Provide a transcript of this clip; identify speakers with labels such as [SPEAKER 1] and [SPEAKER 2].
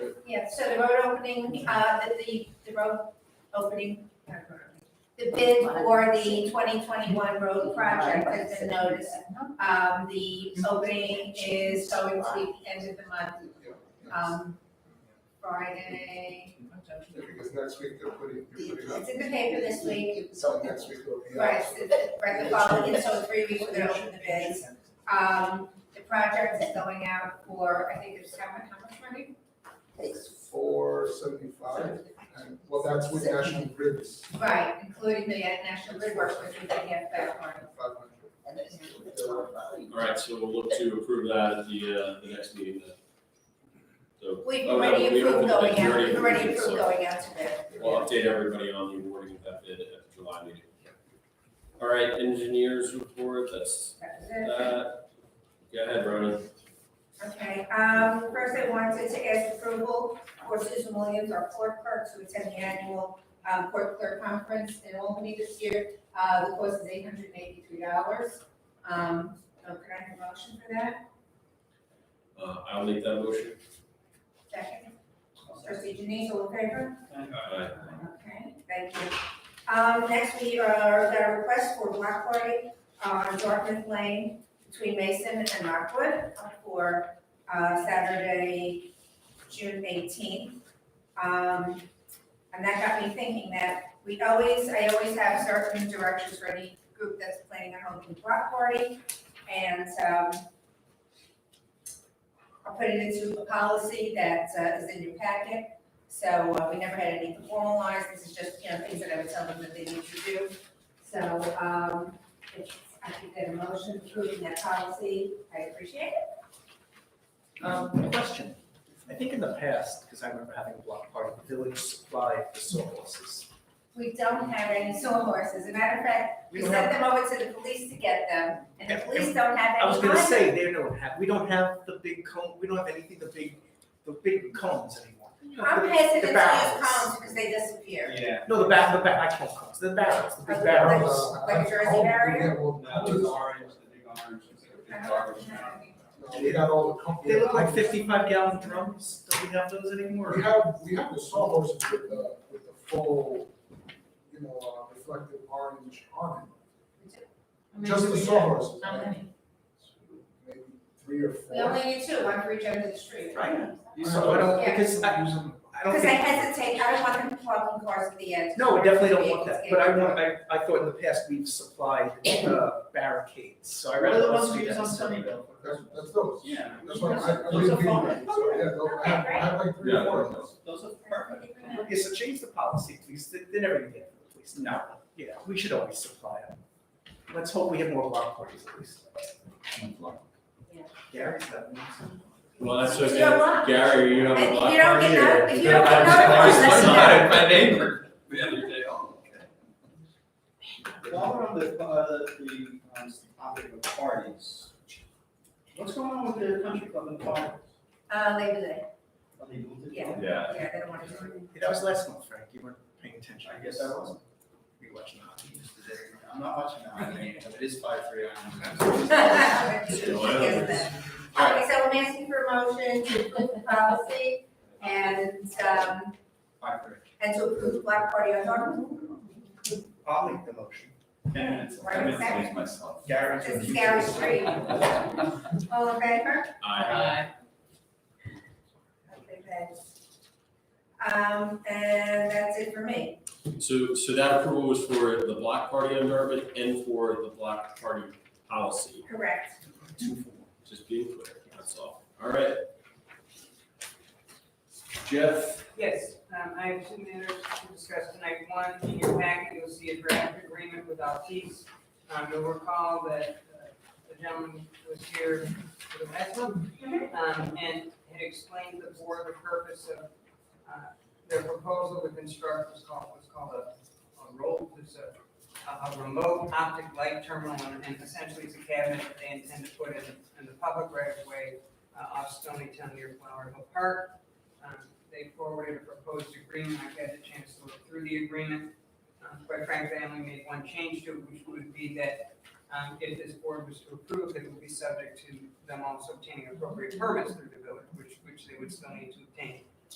[SPEAKER 1] So the road opening, uh, the, the, the road opening, uh, road opening. the bid for the twenty twenty-one road project has been noticed. Um, the opening is going to be the end of the month, um, Friday.
[SPEAKER 2] Because next week they're putting, you're putting up,
[SPEAKER 1] It's in the paper this week,
[SPEAKER 2] so next week will be
[SPEAKER 1] right,
[SPEAKER 2] out.
[SPEAKER 1] so the- right, the following, so three weeks we're gonna open the bids. Um, the project is going out for, I think it's how much, how much money?
[SPEAKER 2] It's four seventy-five, and, well, that's with National Grid, is
[SPEAKER 1] Right, including the uh, National Grid Works, which we didn't get that one.
[SPEAKER 2] five hundred.
[SPEAKER 3] All right, so we'll look to approve that at the, uh, the next meeting then. So
[SPEAKER 1] We've
[SPEAKER 3] Oh, no,
[SPEAKER 1] already
[SPEAKER 3] we
[SPEAKER 1] approved
[SPEAKER 3] opened
[SPEAKER 1] going
[SPEAKER 3] it. We
[SPEAKER 1] out,
[SPEAKER 3] already
[SPEAKER 1] we've already
[SPEAKER 3] approved it,
[SPEAKER 1] approved
[SPEAKER 3] so-
[SPEAKER 1] going out to bid.
[SPEAKER 3] we'll update everybody on the awarding of that bid at the July meeting. All right, engineers report, that's,
[SPEAKER 1] That's it.
[SPEAKER 3] that. Go ahead, Ronan.
[SPEAKER 1] Okay, um, first I wanted to ask approval for Susan Williams, our court clerk, to attend the annual, um, court clerk conference in Albany this year. Uh, the cost is eight hundred and eighty-three dollars. Um, so can I have a motion for that?
[SPEAKER 3] Uh, I'll make that motion.
[SPEAKER 1] Second. Trustee Denise, all in favor?
[SPEAKER 3] Aye.
[SPEAKER 1] Okay, thank you. Um, next, we are, got a request for block party on Dartmouth Lane between Mason and Rockwood for, uh, Saturday, June eighteenth. Um, and that got me thinking that we always, I always have certain directions for any group that's planning a home block party. And, um, I'll put it into a policy that uh, is in your packet. So uh, we never had anything formalized, this is just, you know, things that I would tell them that they need to do. So um, if I could get a motion approving that policy, I appreciate it.
[SPEAKER 4] Um, question, I think in the past, because I remember having a block party, the village supplied the sawhorses.
[SPEAKER 1] We don't have any sawhorses, as a matter of fact, we
[SPEAKER 4] We don't have-
[SPEAKER 1] sent them over to the police to get them, and the
[SPEAKER 4] Yeah,
[SPEAKER 1] police don't have any.
[SPEAKER 4] I was gonna
[SPEAKER 1] either.
[SPEAKER 4] say, they don't have, we don't have the big cone, we don't have anything, the big, the big cones anymore.
[SPEAKER 1] I'm hesitant to
[SPEAKER 4] The
[SPEAKER 1] use
[SPEAKER 4] barrels.
[SPEAKER 1] cones because they disappear.
[SPEAKER 5] Yeah.
[SPEAKER 4] No, the back, the back, I call cones, the barrels, the
[SPEAKER 1] Like-
[SPEAKER 4] big barrels.
[SPEAKER 1] Like a Jersey barrier?
[SPEAKER 5] Now, those orange, the big orange, it's like a
[SPEAKER 1] I don't
[SPEAKER 5] big garbage.
[SPEAKER 1] have any.
[SPEAKER 2] No, we got all the company.
[SPEAKER 4] They look like fifty-five gallon drums, do we have those anymore?
[SPEAKER 2] We have, we have the sawhorses with the, with the full, you know, uh, reflective orange on it, just the sawhorses.
[SPEAKER 1] How many?
[SPEAKER 2] Maybe three or
[SPEAKER 1] We only
[SPEAKER 2] four.
[SPEAKER 1] need two, one for each end of the street.
[SPEAKER 4] Right.
[SPEAKER 5] You
[SPEAKER 4] So I
[SPEAKER 5] saw,
[SPEAKER 4] don't,
[SPEAKER 1] Yeah.
[SPEAKER 4] because I, I don't
[SPEAKER 1] Because I
[SPEAKER 4] think.
[SPEAKER 1] hesitate, I don't want them plugging cars at the end.
[SPEAKER 4] No, I definitely don't want
[SPEAKER 1] Vehicles
[SPEAKER 4] that,
[SPEAKER 1] get-
[SPEAKER 4] but I want, I, I thought in the past we've supplied, uh, barricades, so I
[SPEAKER 5] What are
[SPEAKER 4] rather
[SPEAKER 5] the
[SPEAKER 4] us
[SPEAKER 5] ones we
[SPEAKER 4] do
[SPEAKER 5] use
[SPEAKER 4] that.
[SPEAKER 5] on
[SPEAKER 4] so-
[SPEAKER 5] Sunnyvale?
[SPEAKER 2] That's, that's those.
[SPEAKER 5] yeah,
[SPEAKER 2] That's why I, I
[SPEAKER 5] Those
[SPEAKER 2] really
[SPEAKER 5] are
[SPEAKER 2] feel, so,
[SPEAKER 5] fun.
[SPEAKER 2] yeah, they'll- I have, I have like three or four of those.
[SPEAKER 5] those are perfect.
[SPEAKER 4] Okay, so change the policy, please, they, they never get it, please, no, yeah, we should always supply them. Let's hope we have more block parties at least.
[SPEAKER 1] Yeah.
[SPEAKER 4] Gary's got me.
[SPEAKER 3] Well, that's okay.
[SPEAKER 1] You don't want-
[SPEAKER 3] Gary, you don't have a
[SPEAKER 1] If
[SPEAKER 3] lot
[SPEAKER 1] you don't get
[SPEAKER 3] here.
[SPEAKER 1] no- if you don't
[SPEAKER 3] have
[SPEAKER 1] get
[SPEAKER 3] a
[SPEAKER 1] notified,
[SPEAKER 3] lot.
[SPEAKER 1] that's
[SPEAKER 3] Sorry,
[SPEAKER 1] okay.
[SPEAKER 3] My neighbor, the other day, oh, okay.
[SPEAKER 5] While we're on the, uh, the, um, topic of parties, what's going on with the country club and parties?
[SPEAKER 1] Uh, Labor Day,
[SPEAKER 5] Are they moving it?
[SPEAKER 1] Yeah.
[SPEAKER 3] Yeah.
[SPEAKER 1] yeah, they don't want to. do
[SPEAKER 4] That was last month, Frank, you weren't paying attention.
[SPEAKER 5] I guess I wasn't.
[SPEAKER 4] You watching hockey yesterday.
[SPEAKER 5] I'm not watching that, I mean, it is five, three,
[SPEAKER 1] it.
[SPEAKER 5] I
[SPEAKER 1] Okay,
[SPEAKER 3] All right,
[SPEAKER 1] so I'm asking for a motion to approve the policy and, um,
[SPEAKER 5] Five, three.
[SPEAKER 1] and to approve the block party on Dartmouth.
[SPEAKER 4] I'll make the motion.
[SPEAKER 5] Ten minutes.
[SPEAKER 1] Right,
[SPEAKER 5] Ten minutes.
[SPEAKER 1] exactly.
[SPEAKER 3] myself.
[SPEAKER 4] Gary's.
[SPEAKER 1] This is Gary Street. All in favor?
[SPEAKER 3] Aye.
[SPEAKER 1] Okay, thanks. Um, and that's it for me.
[SPEAKER 3] So, so that approval was for the block party on Dartmouth and for the block party policy,
[SPEAKER 1] Correct.
[SPEAKER 3] just being clear, that's all. All right. Jeff,
[SPEAKER 6] Yes, um, I have two matters to discuss tonight. One, in your packet, you'll see a draft agreement with Altice. Um, you'll recall that uh, the gentleman was here for the last one, um, and had explained to the board the purpose of, uh, their proposal to construct what's called, what's called a, a roll, it's a, a- a remote optic light terminal, and- and essentially it's a cabinet that they intend to put in, in the public right of way, uh, off Stony Town near Flower Hill Park. Um, They forwarded a proposed agreement, I've had a chance to look through the agreement. Um, Quite frankly, I only made one change to it, which would be that um, if this board was to approve, it would be subject to them also obtaining appropriate permits through the village, which, which they would still need to obtain.